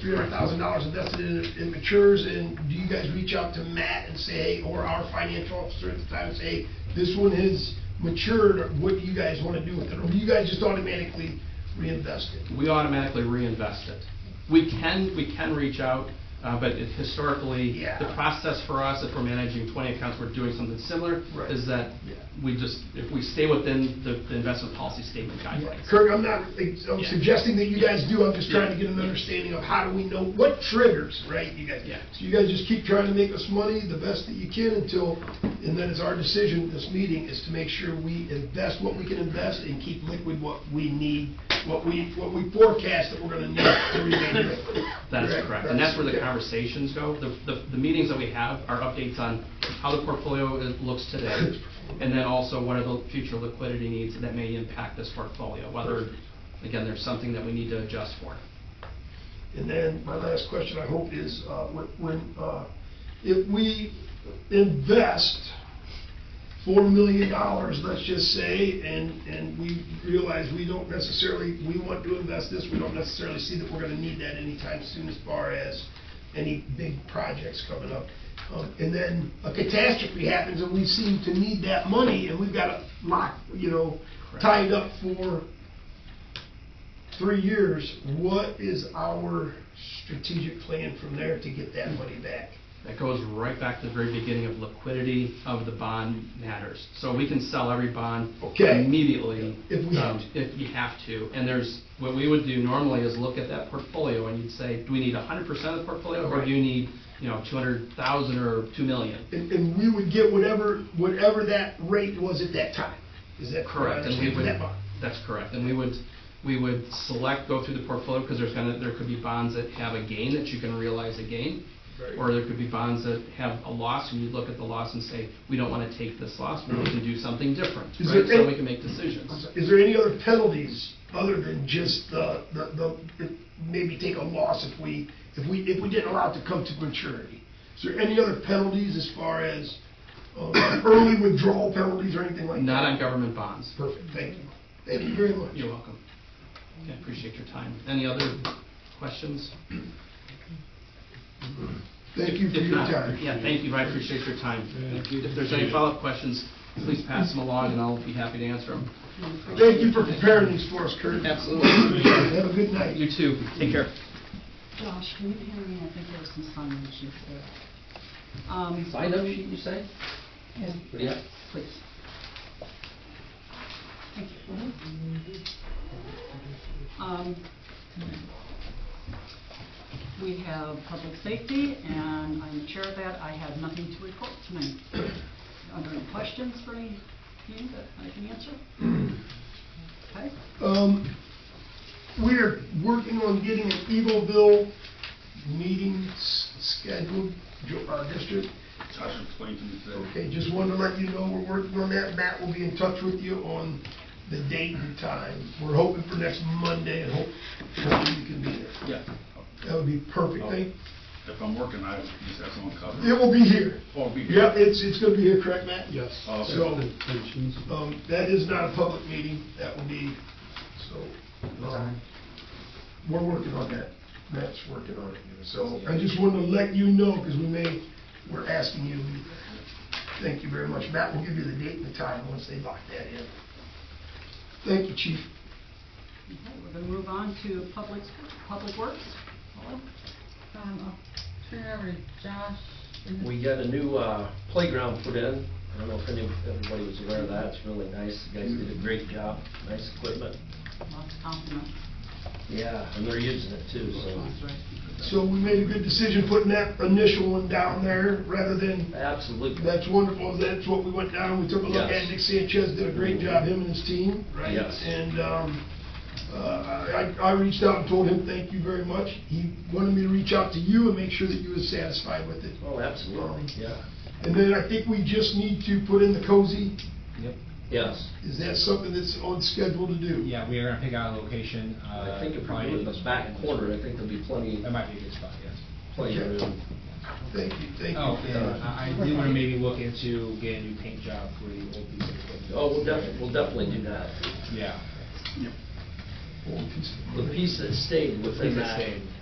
three hundred thousand dollars invested in it, it matures, and do you guys reach out to Matt and say, hey, or our financial officer at the time, and say, hey, this one has matured, or what do you guys wanna do with it, or do you guys just automatically reinvest it? we automatically reinvest it. We can, we can reach out, uh, but it- historically, Yeah. the process for us, if we're managing 20 accounts, we're doing something similar, Right. is that Yeah. we just, if we stay within the the investment policy statement guidelines. Kirk, I'm not, I'm Yeah. suggesting that you guys do, I'm just trying to Yeah. get an understanding of how do we know, what triggers, right, you guys? Yeah. So you guys just keep trying to make us money the best that you can until, and then it's our decision, this meeting, is to make sure we invest what we can invest and keep liquid what we need, what we, what we forecast that we're gonna need to remain liquid. That is correct, and that's where the Okay. conversations go. The- The the meetings that we have are updates on how the portfolio is- looks today, and then also what are the future liquidity needs that may impact this portfolio, whether, again, there's something that we need to adjust for. And then my last question, I hope, is uh, when- when, uh, if we invest $4 million, let's just say, and, and we realize we don't necessarily, we want to invest this, we don't necessarily see that we're going to need that anytime soon as far as any big projects coming up. Um, And then a catastrophe happens and we seem to need that money and we've got it locked, you know, Correct. tied up for three years, what is our strategic plan from there to get that money back? That goes right back to the very beginning of liquidity of the bond matters. So we can sell every bond Okay. immediately. If we have um, to. If you have to. And there's, what we would do normally is look at that portfolio and you'd say, do we need hundred percent of the portfolio? Or Right. do you need, you know, two hundred thousand or two million? And, and we would get whatever, whatever that rate was at that time. Is that correct? Correct, and we would, That bond. that's correct, and we would, we would select, go through the portfolio, because there's gonna, there could be bonds that have a gain, that you can realize a gain, Right. or there could be bonds that have a loss, and you look at the loss and say, we don't wanna take this loss, we can do something different, Is there right? So any- we can make decisions. Is there any other penalties other than just the, the, the, maybe take a loss if we, if we, if we didn't allow it to come to maturity? Is there any other penalties as far as, um, early withdrawal penalties or anything like that? Not on government bonds. Perfect, thank you. Thank you very much. You're welcome. I appreciate your time. Any other questions? Thank you for If your not- time. Yeah, thank you, I appreciate your time. If there's any follow-up questions, please pass them along, and I'll be happy to answer them. Thank you for preparing these for us, Kurt. Absolutely. Have a good night. You too, take care. Josh, can you hear me? I think there was some sound issues there. Um, Sign up sheet, you say? yeah, Yeah. Please. Thank you. Um, We have public safety, and I'm the chair of that. I have nothing to report tonight. Are there any questions for any of you that I can answer? Okay, Um, we are working on getting an Eagleville meeting s- scheduled, jo- our district. Josh explained to me today. Okay, just wanted to let you know we're working on that. Matt will be in touch with you on the date and time. We're hoping for next Monday and hope, hopefully you can be there. Yeah. That would be perfect. Thank, If I'm working, I just have someone cover. it will be here. Oh, be here. Yeah, it's, it's gonna be here, correct, Matt? Yes. Oh, okay. So, um, that is not a public meeting, that will be, so, um, we're working on that, Matt's working on it. So, I just wanted to let you know, because we may, we're asking you, to be there. thank you very much, Matt will give you the date and the time once they lock that in. Thank you, chief. Okay, we're gonna move on to public, public works. Hello? Um, I'll turn it over to Josh. and then- We got a new uh, playground put in. I don't know if any, everybody was aware of that. It's really nice. You guys did a great job. Nice equipment. oh, Lots of compliments. Yeah, and they're using it too, That's so. right. So we made a good decision putting that initial one down there, rather than, Absolutely. that's wonderful, that's what we went down, we took a look at, Yes. Nick Sanchez did a great job, him and his team. right? Yes. And um, uh, I I reached out and told him, thank you very much. He wanted me to reach out to you and make sure that you were satisfied with it. Oh, absolutely, yeah. And then I think we just need to put in the cozy. Yes. Is that something that's on schedule to do? Yeah, we are gonna pick out a location. I uh, think if we probably do it in the back corner, I think there'll be plenty, That might be a good spot, yes. plenty of room. Thank you, thank you. Oh, and I I do wanna maybe look into getting a new paint job for the old piece of equipment. Oh, we'll definitely, we'll definitely do that. Yeah. Old piece of- The piece that stayed within Piece that that stayed.